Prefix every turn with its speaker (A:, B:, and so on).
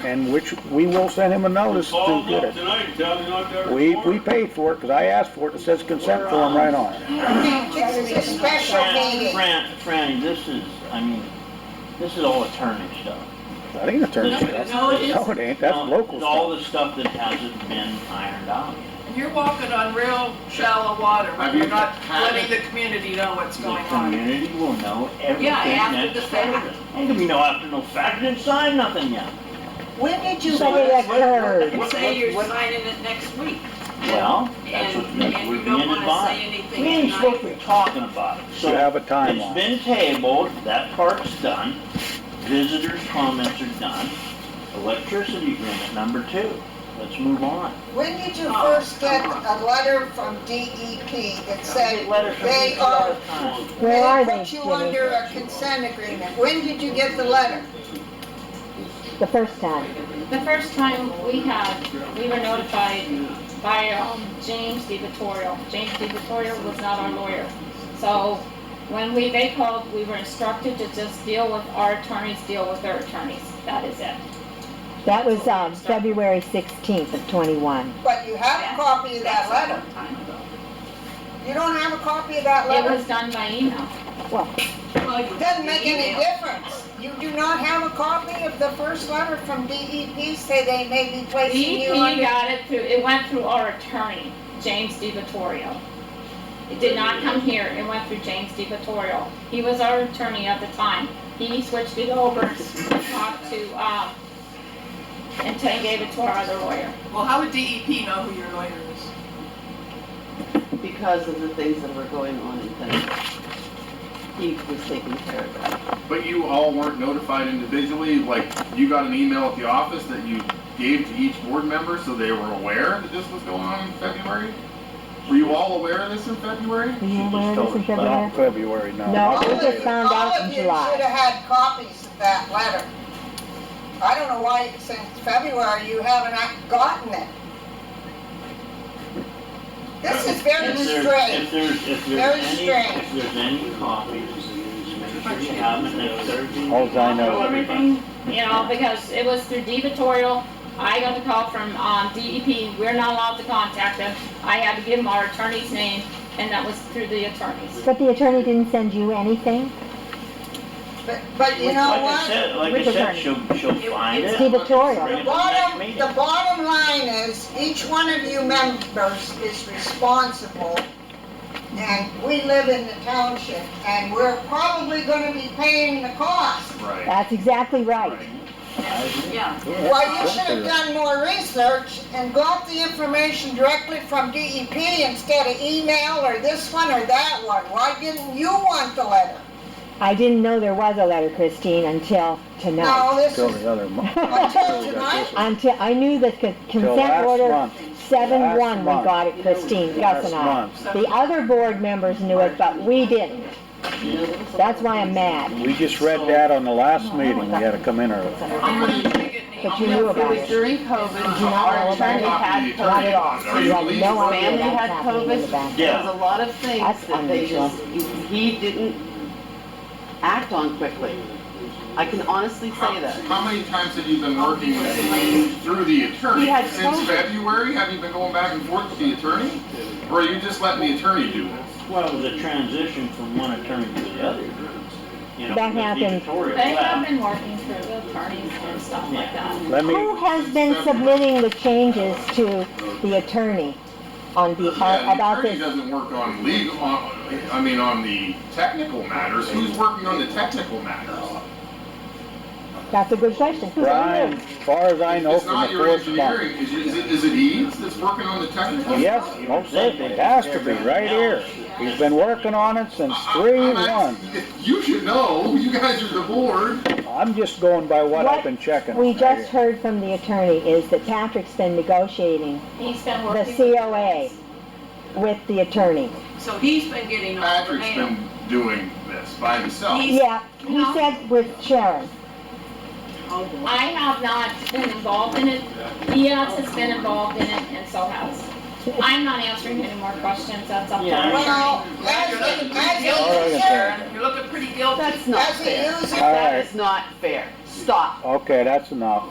A: and which, we will send him a notice to
B: Call
A: get
B: him up
A: it.
B: tonight, and tell him not to ever
A: We,
B: report
A: we
B: it.
A: paid for it, because I asked for it, it says consent form right on it.
C: It's a special
D: Fran,
C: meeting.
D: Fran, Fran, this is, I mean, this is all attorney stuff.
A: That ain't attorney
D: No,
A: stuff.
E: no, it
A: No, it ain't, that's
D: Now,
A: local
D: it's All
A: stuff.
D: the stuff that hasn't been ironed out yet.
E: And you're walking on real shallow water,
F: Have
E: when
F: you
E: you're not
F: had
E: letting the community know what's going
D: The
E: on.
D: community will know everything
E: after the
D: that's
E: fact.
D: happened. Ain't gonna be no after no fact, didn't sign nothing yet.
C: When did you
D: So
C: say
D: what-
C: that
D: what-
C: occurred?
E: And say you're signing it next week.
D: Well, that's
E: And,
D: what, that's
E: and
D: what
E: you
D: we
E: don't
D: ended
E: wanna say
D: by.
E: anything
D: We ain't supposed to
E: tonight.
D: be talking about it, so.
A: Should have a
D: It's
A: timeline.
D: been tabled, that part's done, visitors' comments are done, electricity agreement number two, let's move on.
C: When did you first get a letter from DEP that said
D: Letter from
C: they
D: each
C: are,
D: other time.
G: Where are
C: they
G: they,
C: put you
G: Jimmy?
C: under a consent agreement? When did you get the letter?
G: The first time?
H: The first time we had, we were notified by um, James DiVittorio. James DiVittorio was not our lawyer. So when we, they called, we were instructed to just deal with our attorneys, deal with their attorneys. That is it.
G: That was, um, February sixteenth of twenty-one.
C: But you have a copy of that letter. You don't have a copy of that
H: It
C: letter?
H: was done by email.
C: It Doesn't make any difference. You do not have a copy of the first letter from DEP say they may be placing you
H: DEP
C: under.
H: got it through, it went through our attorney, James DiVittorio. It did not come here, it went through James DiVittorio. He was our attorney at the time. He switched it over and talked to, um, and Tony gave it to our other lawyer.
E: Well, how would DEP know who your lawyer is?
I: because of the things that were going on in Denver. He was taking care of that.
F: But you all weren't notified individually, like, you got an email at the office that you gave to each board member, so they were aware that this was going on in February? Were you all aware of this in February?
G: Were you aware of this in
A: Not in February,
G: February?
A: no.
G: No,
C: All
A: not
G: we
C: of
G: just
C: you,
G: found
C: all
G: out
C: of
G: in
C: you should
G: July.
C: have had copies of that letter. I don't know why since February you haven't ac- gotten it. This is very
D: If there's- If
C: strange.
D: there's, if
C: Very
D: there's any,
C: strange.
D: if there's any copies, make sure you have it next Thursday.
A: Alls I know-
H: Everything, you know, because it was through DiVittorio. I got the call from, um, DEP, we're not allowed to contact them. I had to give him our attorney's name, and that was through the attorneys.
G: But the attorney didn't send you anything?
C: But, but you
D: Like
C: know
D: I
C: what?
D: said, like I
G: With the
D: said,
G: attorney.
D: she'll, she'll find
G: It's
D: it.
G: dictatorial.
C: The bottom, the bottom line is, each one of you members is responsible, and we live in the township, and we're probably gonna be paying the cost.
F: Right.
G: That's exactly right.
D: I agree.
E: Yeah,
C: Well, you should have done more research and got the information directly from DEP instead of email or this one or that one. Why didn't you want the letter?
G: I didn't know there was a letter, Christine,
C: No,
G: until tonight.
C: this
A: Till
C: is,
A: the other month.
C: until tonight,
G: Until, I knew that the
A: Till
G: consent
A: last
G: order
A: month.
G: seven one, we
A: Last month.
G: got it, Christine, Gus and I.
A: Last
G: The other board members knew it, but we didn't. That's why I'm mad.
A: month. We just read that on the last meeting, we had to come in early.
E: I'm gonna take it and
G: But you
E: email
G: knew
E: it.
G: about
I: It was
G: it.
I: during COVID,
E: Uh,
G: Do you not
I: our
G: know about
I: attorney
G: it?
I: had
G: Not at
I: COVID,
G: all. You had no idea
I: family
G: that was
I: had
G: happening in the
I: COVID.
G: background.
I: There was a lot of things
G: That's
I: that they
G: unusual.
I: just, he didn't act on quickly. I can honestly say that.
F: How many times have you been working with, through the attorney?
I: He had
F: Since
I: COVID.
F: February, have you been going back and forth with the attorney? Or are you just letting the attorney do it?
D: Well, it was a transition from one attorney to the other. You know,
G: That
D: with
G: happened.
D: Victoria
H: They have
D: left.
H: been working through the attorneys and stuff like that.
A: Let me,
G: Who has been submitting the changes to the attorney on the,
F: Yeah,
G: uh,
F: the
G: about
F: attorney
G: this?
F: doesn't work on legal, on, I mean, on the technical matters. Who's working on the technical matters?
G: That's a good question. Who
A: Brian,
G: knows?
A: as far as I know,
F: It's
A: from
F: not
A: the
F: your
A: fourth month.
F: engineering. Is it- is it, is it Eads that's working on the technical?
A: Yes, most certainly, it has to be, right here. He's been working on it since three
F: I'm
A: one.
F: asking- You should know. You guys are the board.
A: I'm just going by what I've
G: What
A: been checking.
G: We
A: on right
G: just
A: here.
G: heard from the attorney is that Patrick's been negotiating
H: He's been
G: the
H: working. with
G: COA with the attorney.
E: So he's been getting all the
F: Patrick's
E: mail.
F: been doing this by himself.
E: He's-
G: Yeah, he said with Sharon.
E: Oh, boy.
H: I have not been involved in it. EOS has been involved in it, and so has. I'm not answering any more questions, that's up to
D: Yeah.
C: well,
H: our attorney.
C: as a, as a
E: You're looking pretty guilty,
A: Alright,
C: user,
E: Sharon. You're looking pretty guilty.
I: That's not
C: as a
I: fair.
C: user,
A: All
I: That
A: right,
I: is not fair. Stop.
A: okay, that's enough.